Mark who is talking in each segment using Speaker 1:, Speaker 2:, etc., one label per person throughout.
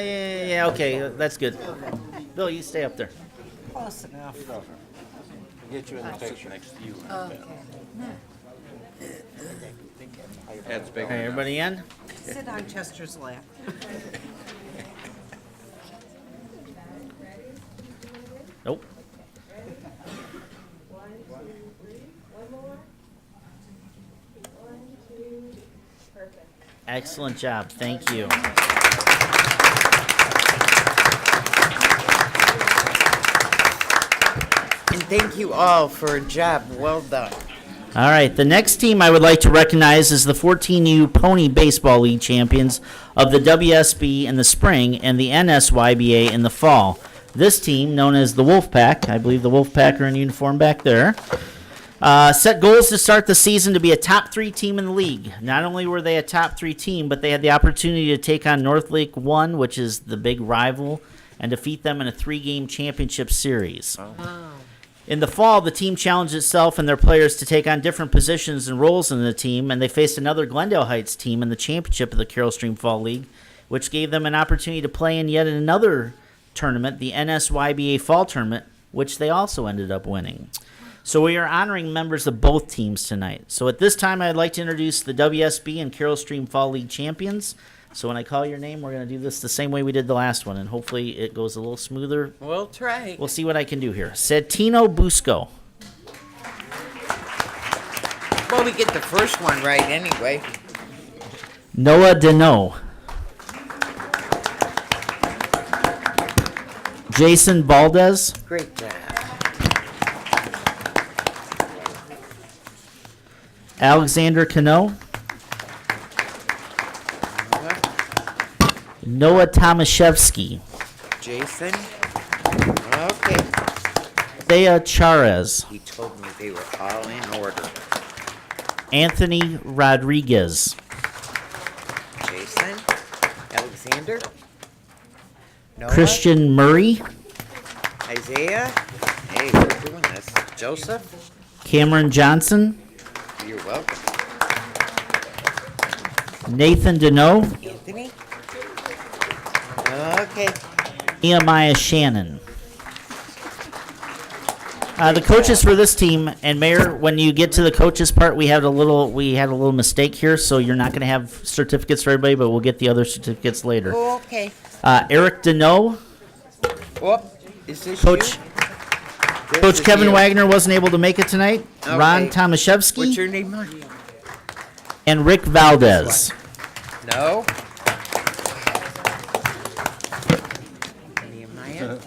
Speaker 1: yeah, yeah, okay, that's good. Bill, you stay up there.
Speaker 2: Close enough.
Speaker 3: Get you in the picture. Next to you.
Speaker 2: Okay. No.
Speaker 3: That's big
Speaker 1: Okay,
Speaker 3: enough.
Speaker 1: everybody in?
Speaker 2: Sit on Chester's lap.
Speaker 1: Nope. Excellent job, thank you.
Speaker 2: And thank you all for a job well done.
Speaker 1: All right, the next team I would like to recognize is the 14U Pony Baseball League champions of the WSB in the spring and the NSYBA in the fall. This team, known as the Wolfpack, I believe the Wolfpack are in uniform back there, uh, set goals to start the season to be a top three team in the league. Not only were they a top three team, but they had the opportunity to take on North Lake 1, which is the big rival, and defeat them in a three game championship series. In the fall, the team challenged itself and their players to take on different positions and roles in the team, and they faced another Glendale Heights team in the championship of the Carroll Stream Fall League, which gave them an opportunity to play in yet another tournament, the NSYBA Fall Tournament, which they also ended up winning. So we are honoring members of both teams tonight. So at this time, I'd like to introduce the WSB and Carroll Stream Fall League champions. So when I call your name, we're going to do this the same way we did the last one, and hopefully it goes a little smoother
Speaker 2: We'll try.
Speaker 1: We'll see what I can do here. Santino Busco.
Speaker 2: Well, we get the first one right anyway.
Speaker 1: Noah Deneau. Jason Valdez.
Speaker 2: Great job.
Speaker 1: Alexander Cano. Noah Tomaszewski.
Speaker 2: Jason? Okay.
Speaker 1: Thea Charez.
Speaker 2: He told me they were all in order.
Speaker 1: Anthony Rodriguez.
Speaker 2: Jason? Alexander? Noah?
Speaker 1: Christian Murray.
Speaker 2: Isaiah? Hey, we're doing this. Joseph?
Speaker 1: Cameron Johnson.
Speaker 2: You're welcome.
Speaker 1: Nathan Deneau.
Speaker 2: Anthony? Okay.
Speaker 1: Nehemiah Shannon. Uh, the coaches for this team and Mayor, when you get to the coaches part, we had a little we had a little mistake here, so you're not going to have certificates for everybody, but we'll get the other certificates later.
Speaker 2: Okay.
Speaker 1: Uh, Eric Deneau,
Speaker 2: Whoop. Is this
Speaker 1: Coach
Speaker 2: you? This is
Speaker 1: Coach Kevin
Speaker 2: you.
Speaker 1: Wagner wasn't able to make it tonight. Ron
Speaker 2: Okay.
Speaker 1: Tomaszewski
Speaker 2: What's your name, Mark?
Speaker 1: and Rick Valdez.
Speaker 2: No. Nehemiah?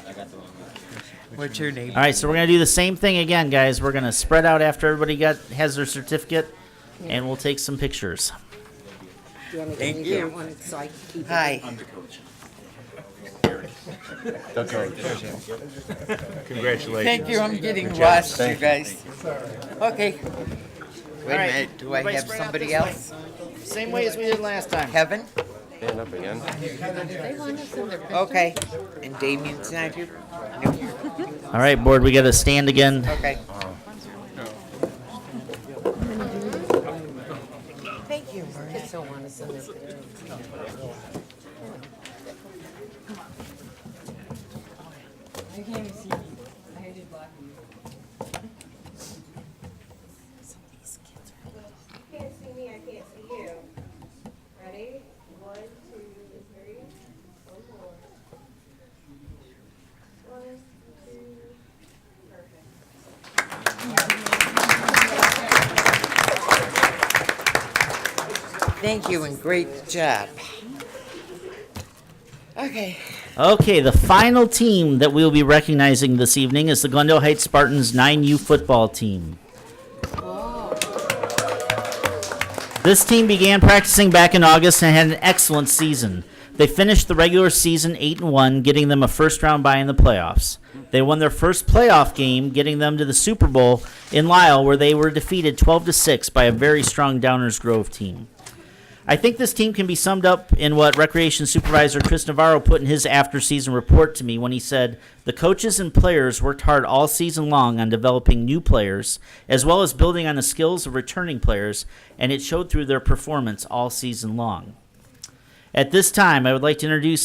Speaker 2: What's your name?
Speaker 1: All right, so we're going to do the same thing again, guys. We're going to spread out after everybody got has their certificate, and we'll take some pictures.
Speaker 2: Thank you. Hi.
Speaker 3: Congratulations.
Speaker 2: Thank you, I'm getting lost, you guys. Okay. Wait a
Speaker 1: right.
Speaker 2: minute, do I
Speaker 1: Everybody
Speaker 2: have
Speaker 1: spread out
Speaker 2: somebody
Speaker 1: this way.
Speaker 2: else?
Speaker 1: Same way as we did last time.
Speaker 2: Kevin?
Speaker 3: Stand up again.
Speaker 2: Okay. And Damien's not here? No,
Speaker 1: All right, board, we got to stand again.
Speaker 2: okay. Thank you, Maria.
Speaker 4: I can't even see you. I had you block me.
Speaker 5: Can't see me, I can't see you. Ready? One, two, three, one more. One, two, perfect.
Speaker 2: Thank you and great job. Okay.
Speaker 1: Okay, the final team that we'll be recognizing this evening is the Glendale Heights Spartans 9U football team. This team began practicing back in August and had an excellent season. They finished the regular season 8 and 1, getting them a first round bye in the playoffs. They won their first playoff game, getting them to the Super Bowl in Lisle where they were defeated 12 to 6 by a very strong Downers Grove team. I think this team can be summed up in what Recreation Supervisor Chris Navarro put in his after season report to me when he said the coaches and players worked hard all season long on developing new players as well as building on the skills of returning players, and it showed through their performance all season long. At this time, I would like to introduce